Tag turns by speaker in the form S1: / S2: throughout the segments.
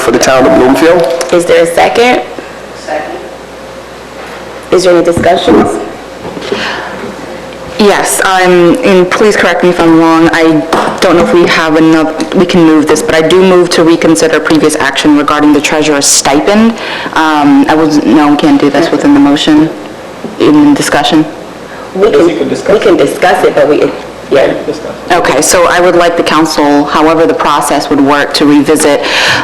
S1: for the town of Bloomfield.
S2: Is there a second? Second. Is there any discussions?
S3: Yes, um, and please correct me if I'm wrong, I don't know if we have enough, we can move this, but I do move to reconsider previous action regarding the treasurer's stipend. Um, I was, no, we can't do this within the motion, in discussion.
S2: We can, we can discuss it, but we, yeah.
S3: Okay, so I would like the council, however the process would work, to revisit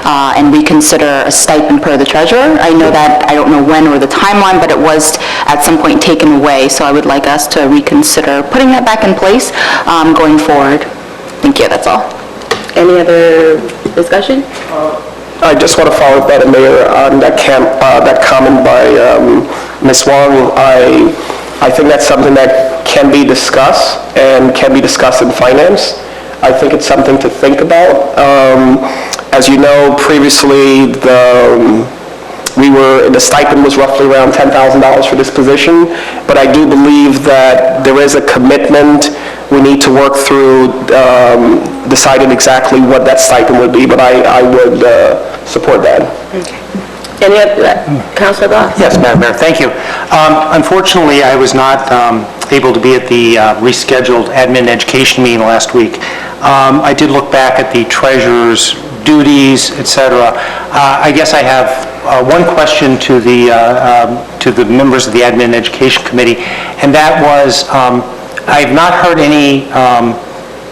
S3: uh, and reconsider a stipend per the treasurer. I know that, I don't know when or the timeline, but it was at some point taken away, so I would like us to reconsider putting that back in place um, going forward. Thank you, that's all.
S2: Any other discussion?
S1: I just want to follow up, Madam Mayor, on that camp, uh, that comment by, um, Ms. Wong. I, I think that's something that can be discussed and can be discussed in finance. I think it's something to think about. Um, as you know, previously, the, um, we were, the stipend was roughly around $10,000 for this position, but I do believe that there is a commitment, we need to work through um, deciding exactly what that stipend would be, but I, I would uh, support that.
S2: Any other, uh, Counselor Goss?
S4: Yes, Madam Mayor, thank you. Um, Unfortunately, I was not um, able to be at the uh, rescheduled admin and education meeting last week. Um, I did look back at the treasurer's duties, et cetera. Uh, I guess I have uh, one question to the, uh, um, to the members of the admin and education committee, and that was, um, I've not heard any, um,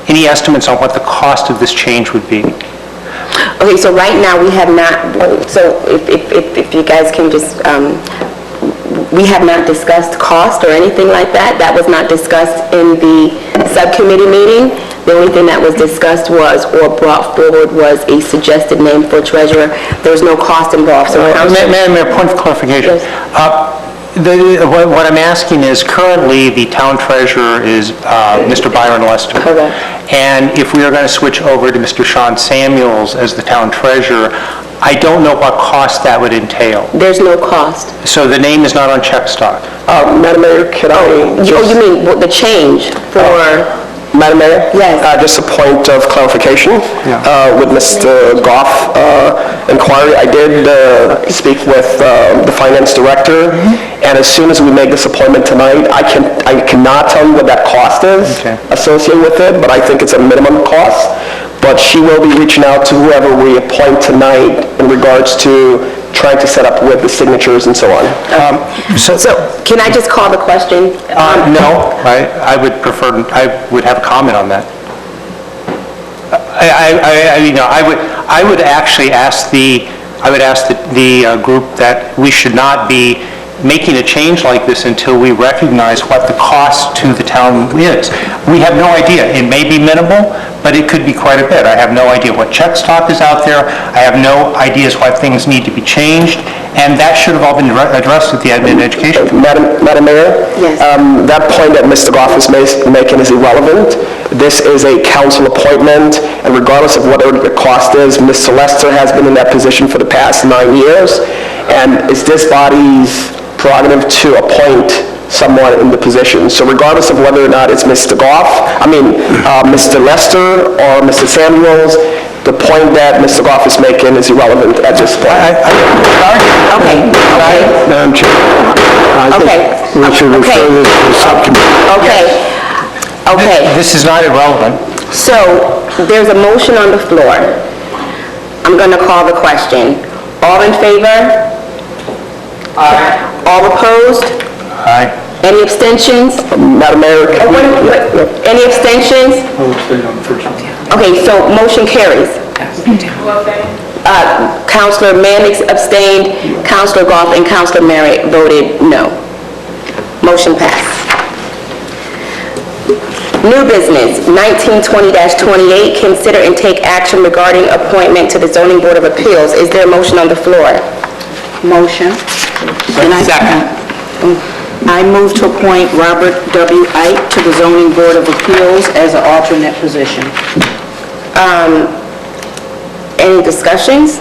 S4: any estimates on what the cost of this change would be.
S2: Okay, so right now, we have not, so if, if, if if you guys can just, um, we have not discussed cost or anything like that. That was not discussed in the subcommittee meeting. The only thing that was discussed was, or brought forward was a suggested name for treasurer. There's no cost involved, so
S4: Uh,
S2: Counselor-
S4: Ma- Madam Mayor, point of clarification.
S2: Yes.
S4: Uh, the- What what I'm asking is, currently, the town treasurer is uh, Mr. Byron Lester.
S2: Correct.
S4: And if we are going to switch over to Mr. Sean Samuels as the town treasurer, I don't know what cost that would entail.
S2: there's no cost.
S4: So the name is not on check stock.
S1: Uh, Madam Mayor, can I
S2: You- Oh,
S1: just...
S2: you mean what- the change for,
S1: Madam Mayor?
S2: Yes.
S1: Uh, Just a point of clarification
S4: Yeah.
S1: uh, with Mr. Goff uh, inquiry. I did uh, speak with uh, the finance director,
S4: Mm-hmm.
S1: and as soon as we make this appointment tonight, I can, I cannot tell you what that cost is
S4: Okay.
S1: associated with it, but I think it's a minimum cost. But she will be reaching out to whoever we appoint tonight in regards to trying to set up with the signatures and so on.
S4: Um, So,
S2: can I just call the question? Um,
S4: Uh, no, I I would prefer, I would have a comment on that. I, I, I, you know, I would, I would actually ask the, I would ask the, the uh, group that we should not be making a change like this until we recognize what the cost to the town is. We have no idea. It may be minimal, but it could be quite a bit. I have no idea what check stock is out there. I have no ideas why things need to be changed, and that should have all been re- addressed at the admin and education.
S1: Madam Madam Mayor?
S2: Yes.
S1: um, That point that Mr. Goff is ma- making is irrelevant. This is a council appointment, and regardless of whatever the cost is, Ms. Lester has been in that position for the past nine years, and it's this body's prerogative to appoint someone in the position. So regardless of whether or not it's Mr. Goff, I mean, uh, Mr. Lester or Mr. Samuels, the point that Mr. Goff is making is irrelevant at this point.
S2: Okay, okay,
S5: Madam Chair, I think we should refer this to the subcommittee.
S2: okay, okay.
S4: This is not irrelevant.
S2: So, there's a motion on the floor. I'm gonna call the question. All in favor? Aye. All opposed?
S4: Aye.
S2: Any abstentions?
S1: Madam Mayor?
S2: Oh, wait, wait, Any abstentions? Okay, so motion carries. Uh, Counselor Mannix abstained, Counselor Goff and Counselor Merritt voted no. Motion passed. New business, 1920-28, consider and take action regarding appointment to the zoning board of appeals. Is there a motion on the floor?
S6: Motion. And I second. I move to appoint Robert W. Ike to the Zoning Board of Appeals as an alternate position.
S2: Any discussions?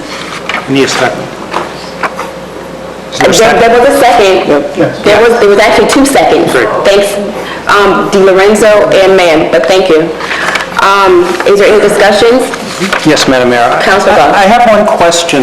S4: Need a second. Is there a
S2: There
S4: second?
S2: there was a second. There was, there was actually two seconds. Thanks, um, DiLorenzo and Mann, but thank you. Um, is there any discussions?
S4: Yes, Madam Mayor.
S2: Counselor Goff.
S4: I I have one question